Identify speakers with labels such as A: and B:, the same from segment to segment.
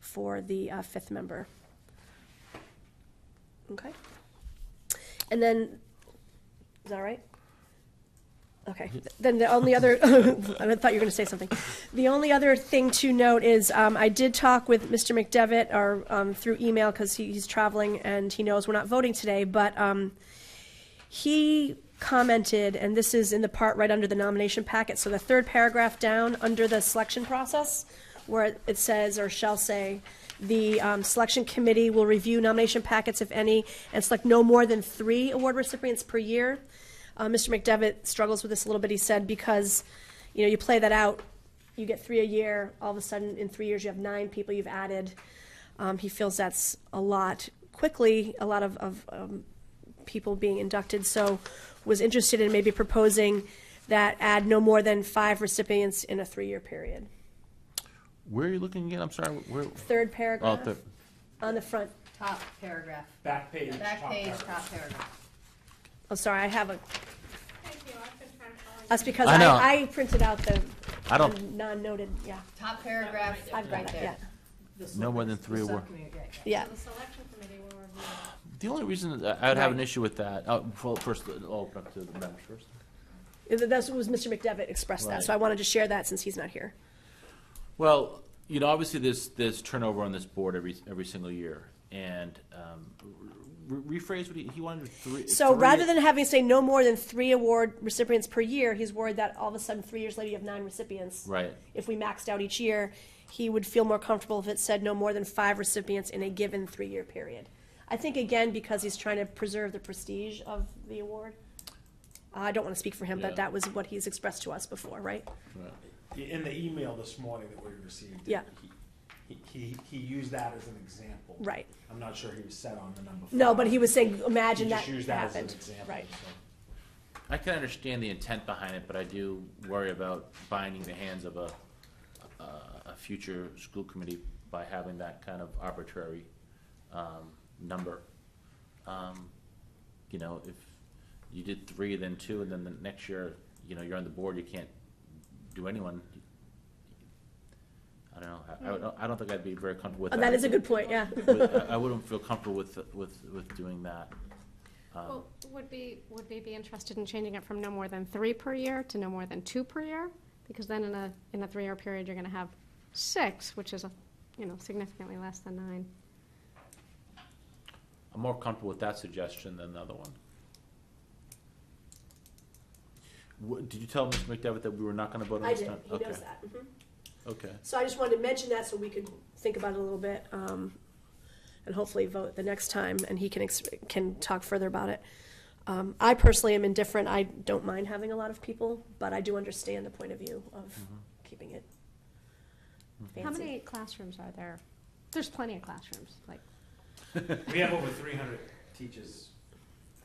A: for the uh, fifth member. Okay? And then, is that right? Okay, then the only other, I thought you were going to say something. The only other thing to note is, um, I did talk with Mr. McDevitt, or, um, through email, because he's traveling and he knows we're not voting today, but, um, he commented, and this is in the part right under the nomination packet, so the third paragraph down, under the selection process, where it says, or shall say, the um, selection committee will review nomination packets, if any, and select no more than three award recipients per year. Uh, Mr. McDevitt struggles with this a little bit, he said, because, you know, you play that out, you get three a year, all of a sudden, in three years, you have nine people you've added. Um, He feels that's a lot quickly, a lot of, of um, people being inducted, so was interested in maybe proposing that add no more than five recipients in a three-year period.
B: Where are you looking again? I'm sorry, where?
A: Third
B: Oh,
A: paragraph
B: the-
A: on the front.
C: Top paragraph,
D: Back page.
C: back
D: top
C: page,
D: paragraph.
C: top paragraph.
A: Oh, sorry, I have a,
E: Thank you, I've been trying to follow you.
A: that's because
B: I know.
A: I, I printed out the
B: I
A: the
B: don't,
A: non-noted, yeah.
C: Top paragraph,
A: I've got
C: right
A: it, yeah.
C: there.
B: no more than three
C: The
B: award.
C: subcommittee, yeah, yeah.
A: Yeah,
E: The selection committee will review it.
B: The only reason that I- I'd have an
A: Right.
B: issue with that, uh, well, first, I'll open up to the members first.
A: that's what was Mr. McDevitt expressed that,
B: Right.
A: so I wanted to share that since he's not here.
B: Well, you know, obviously, there's, there's turnover on this board every, every single year, and um, re- rephrase what he, he wanted three.
A: So
B: three-
A: rather than having, say, no more than three award recipients per year, he's worried that all of a sudden, three years later, you have nine recipients.
B: Right.
A: If we maxed out each year, he would feel more comfortable if it said no more than five recipients in a given three-year period. I think, again, because he's trying to preserve the prestige of the award. I don't want to speak for him,
B: Yeah.
A: but that was what he's expressed to us before, right?
D: In the email this morning that we received.
A: Yeah.
D: he- He, he used that as an example.
A: Right.
D: I'm not sure he was set on the number.
A: No,
D: five.
A: but he was saying, imagine that
D: He just used that as an
A: happened.
D: example.
A: Right.
D: so.
B: I can understand the intent behind it, but I do worry about binding the hands of a, a, a future school committee by having that kind of arbitrary, um, number. Um, You know, if you did three, then two, and then the next year, you know, you're on the board, you can't do anyone. I don't know, I- I, don't- I don't think I'd be very comfortable with
A: Oh,
B: that.
A: That is a good point, yeah.
B: With- I I wouldn't feel comfortable with, with, with doing that. Um,
E: Well, would be, would they be interested in changing it from no more than three per year to no more than two per year? Because then in a, in a three-year period, you're gonna have six, which is, a you know, significantly less than nine.
B: I'm more comfortable with that suggestion than the other one. What, did you tell Mr. McDevitt that we were not gonna vote on
A: I
B: this
A: did,
B: time?
A: he
B: Okay,
A: knows that. Mhm.
B: Okay,
A: So I just wanted to mention that so we could think about it a little bit, um, and hopefully vote the next time, and he can, ex- can talk further about it. Um, I personally am indifferent, I don't mind having a lot of people, but I do understand the point of view of keeping it
E: How
A: fancy.
E: many classrooms are there? There's plenty of classrooms, like,
D: We have over three hundred teachers.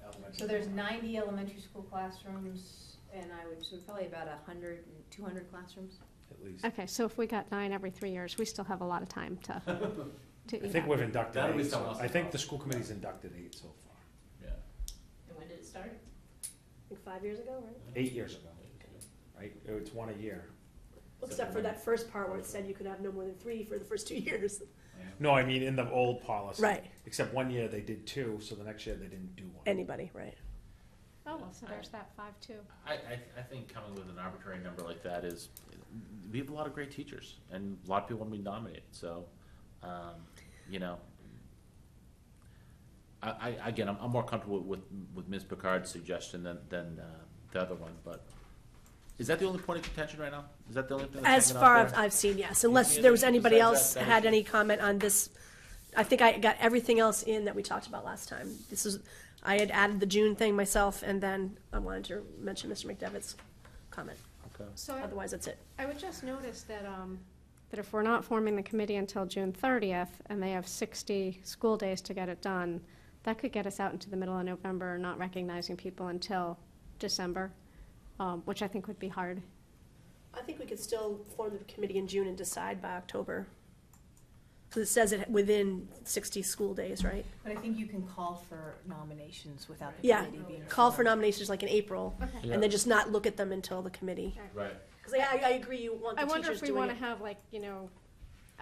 D: elementary.
C: So there's ninety elementary school classrooms, and I would, so probably about a hundred, two hundred classrooms.
D: At least.
E: okay, so if we got nine every three years, we still have a lot of time to, to eat
D: I think
E: up.
D: we've inducted
B: That'll be
D: eight, so-
B: someone else's
D: I think
B: problem.
D: the school committee's inducted eight so far,
B: yeah.
C: And when did it start?
A: Like Five years ago, right?
D: eight years ago, right? Oh, It's one a year.
A: Except for that first part where it said you could have no more than three for the first two years.
D: No, I mean, in the old policy.
A: Right.
D: Except one year they did two, so the next year they didn't do one.
A: Anybody, right?
E: Oh, well, so there's that five, too.
B: I, I, I think coming with an arbitrary number like that is, we have a lot of great teachers, and a lot of people wanna be nominated, so, um, you know. I, I, again, I'm, I'm more comfortable with, with Ms. Picard's suggestion than, than, uh, the other one, but, is that the only point of contention right now? Is that the only thing that's
A: As
B: hanging out
A: far
B: there?
A: as I've seen, yes, unless
B: see
A: there was
B: anything
A: anybody
B: besides
A: else
B: that, that
A: had
B: issue?
A: any comment on this. I think I got everything else in that we talked about last time. This is, I had added the June thing myself, and then I wanted to mention Mr. McDevitt's comment.
B: Okay.
E: So I-
A: Otherwise, that's it.
E: I would just notice that, um, that if we're not forming the committee until June thirtieth, and they have sixty school days to get it done, that could get us out into the middle of November, not recognizing people until December, um, which I think would be hard.
A: I think we could still form the committee in June and decide by October. Because it says it within sixty school days, right?
F: But I think you can call for nominations without the
A: Yeah,
F: committee being.
A: call for
F: formed.
A: nominations like in April,
E: Okay.
A: and then just not look at them until the committee.
B: Right.
A: Because I, I agree, you want
E: I
A: the
E: wonder
A: teachers
E: if we
A: doing
E: wanna
A: it.
E: have like, you know,